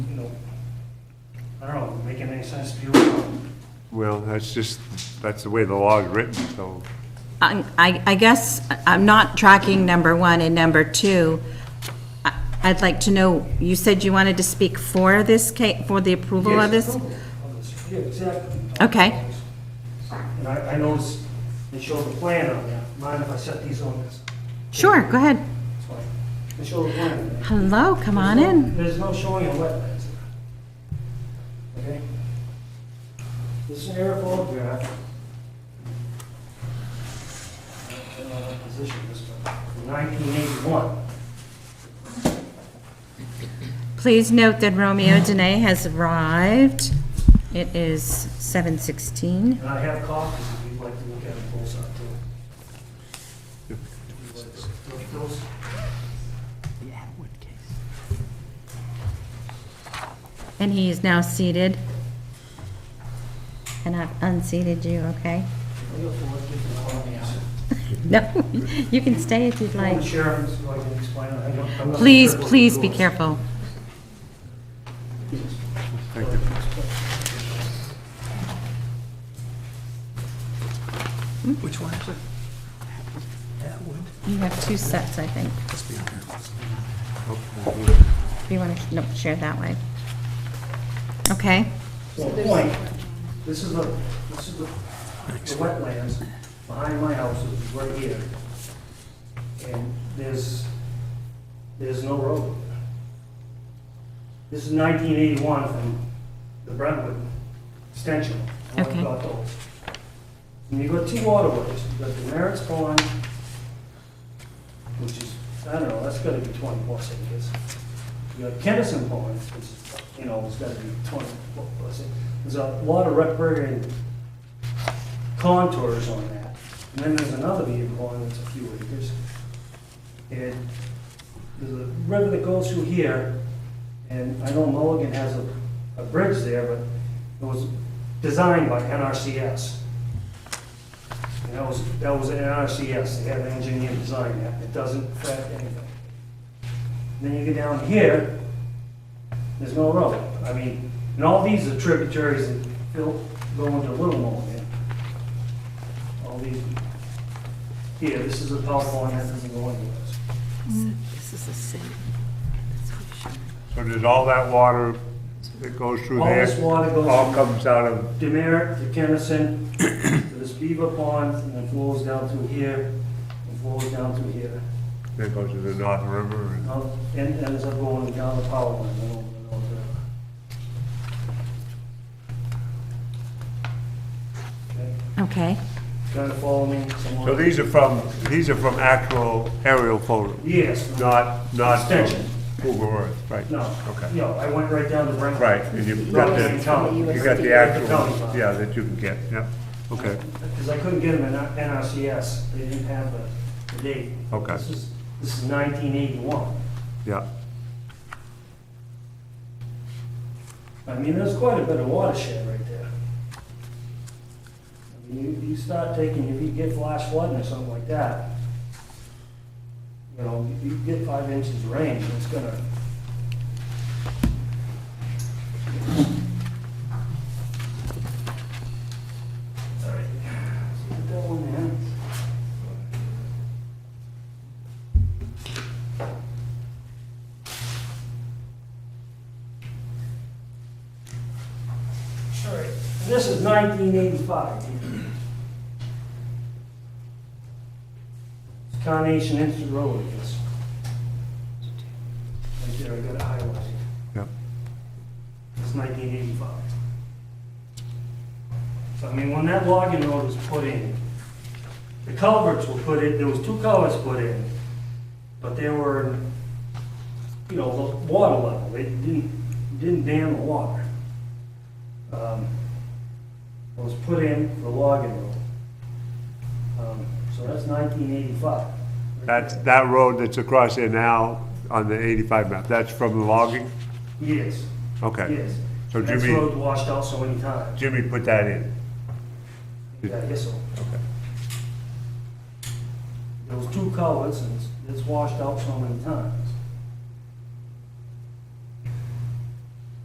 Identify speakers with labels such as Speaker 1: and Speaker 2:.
Speaker 1: I don't know, making any sense to you? um, I
Speaker 2: Well, that's just, that's the way the law is written, so,
Speaker 3: I, Um, I I guess I'm not tracking number one and number two. I- I'd like to know, you said you wanted to speak for this ca, for the approval of this?
Speaker 1: Yeah, exactly.
Speaker 3: Okay.
Speaker 1: And I, I noticed they showed the plan on there. Mind if I set these on this?
Speaker 3: Sure, go ahead.
Speaker 1: That's fine. They showed the plan. on there.
Speaker 3: Hello, come on
Speaker 1: There's no-
Speaker 3: in.
Speaker 1: There's no showing of wetlands there. Okay? This is an air photograph. I don't know what Position this one, from 1981.
Speaker 3: Please note that Romeo Dene has arrived. It is 7:16.
Speaker 1: And I have copies if you'd like to look at them both up too. If you'd like to look those.
Speaker 3: And he is now seated. And I've unseated you, okay?
Speaker 1: We have four different copies.
Speaker 3: No, you can stay if you'd
Speaker 1: Well,
Speaker 3: like.
Speaker 1: the sheriff is going to explain it. I don't- I'm not
Speaker 3: Please,
Speaker 1: sure what the
Speaker 3: please be
Speaker 1: rules-
Speaker 3: careful.
Speaker 2: thank you.
Speaker 4: Which one is it? That would,
Speaker 3: You have two sets, I think.
Speaker 4: must be on here.
Speaker 3: If you want to, no, share that way. Okay,
Speaker 1: Well, point, this is the, this is the the wetlands behind my house is right here. And there's, there's no road. This is 1981 from the Brentwood extension. I
Speaker 3: Okay.
Speaker 1: got those. And you've got two waterways. You've got the Merritt's Pond, which is, I don't know, that's gotta be 20 plus acres. You got Kennison Pond, which, is, you know, it's gotta be 20 plus acres. There's a lot of riparian contours on that. And then there's another beaver pond that's a few acres. And there's a river that goes through here, and I know Mulligan has a, a bridge there, but it was designed by NRCS. And that was, that was an NRCS, they had an engineer design that, it doesn't affect anything. Then you get down here, there's no road. I mean, and all these are tributaries that go go into Little Mulligan. All these, here, this is a power line that doesn't go anywhere.
Speaker 5: This is the city. That's what it should
Speaker 2: So does all that water that goes through
Speaker 1: All this
Speaker 2: there, Um,
Speaker 1: water goes.
Speaker 2: all comes out of,
Speaker 1: Demerit to Kennison, to this Beaver Pond, and then flows down through here, and flows down through here.
Speaker 2: that goes to the North River and
Speaker 1: Now, And and ends up going down the power line. and over and over. Okay,
Speaker 3: okay.
Speaker 1: Trying to follow me somewhere?
Speaker 2: So these are from, these are from actual aerial photos,
Speaker 1: Yes.
Speaker 2: not, not from
Speaker 1: Extension.
Speaker 2: Google Earth, right?
Speaker 1: No.
Speaker 2: Okay.
Speaker 1: No, I went right down to Brentwood.
Speaker 2: Right, and you've got
Speaker 1: Not in
Speaker 2: the,
Speaker 1: county.
Speaker 2: you got the actual, yeah, that you can get, yeah, okay.
Speaker 1: Because I couldn't get them in NRCS, they didn't have the, the date.
Speaker 2: Okay.
Speaker 1: This is, this is nineteen eighty-one.
Speaker 2: Yeah,
Speaker 1: I mean, there's quite a bit of watershed right there. I mean, you, you start taking, if you get flash flooding or something like that, you know, you you get five inches of rain, it's gonna. All right. So Put that one in. All right, and this is 1985. It's Carnation Instant Road, I guess. Right there, I got it highlighted.
Speaker 2: yeah.
Speaker 1: It's 1985. So, I mean, when that logging road was put in, the culverts were put in, there was two culverts put in, but they were, you know, the water level, it didn't, didn't dam the water. Um, It was put in for logging road. Um, So that's 1985.
Speaker 2: That's, that road that's across there now on the 85 map, that's from the logging?
Speaker 1: Yes,
Speaker 2: Okay.
Speaker 1: yes.
Speaker 2: So
Speaker 1: That's
Speaker 2: Jimmy-
Speaker 1: road washed out so many times.
Speaker 2: Jimmy put that in?
Speaker 1: Yeah, I guess so.
Speaker 2: Okay.
Speaker 1: There was two culverts and it's- it's washed out so many times.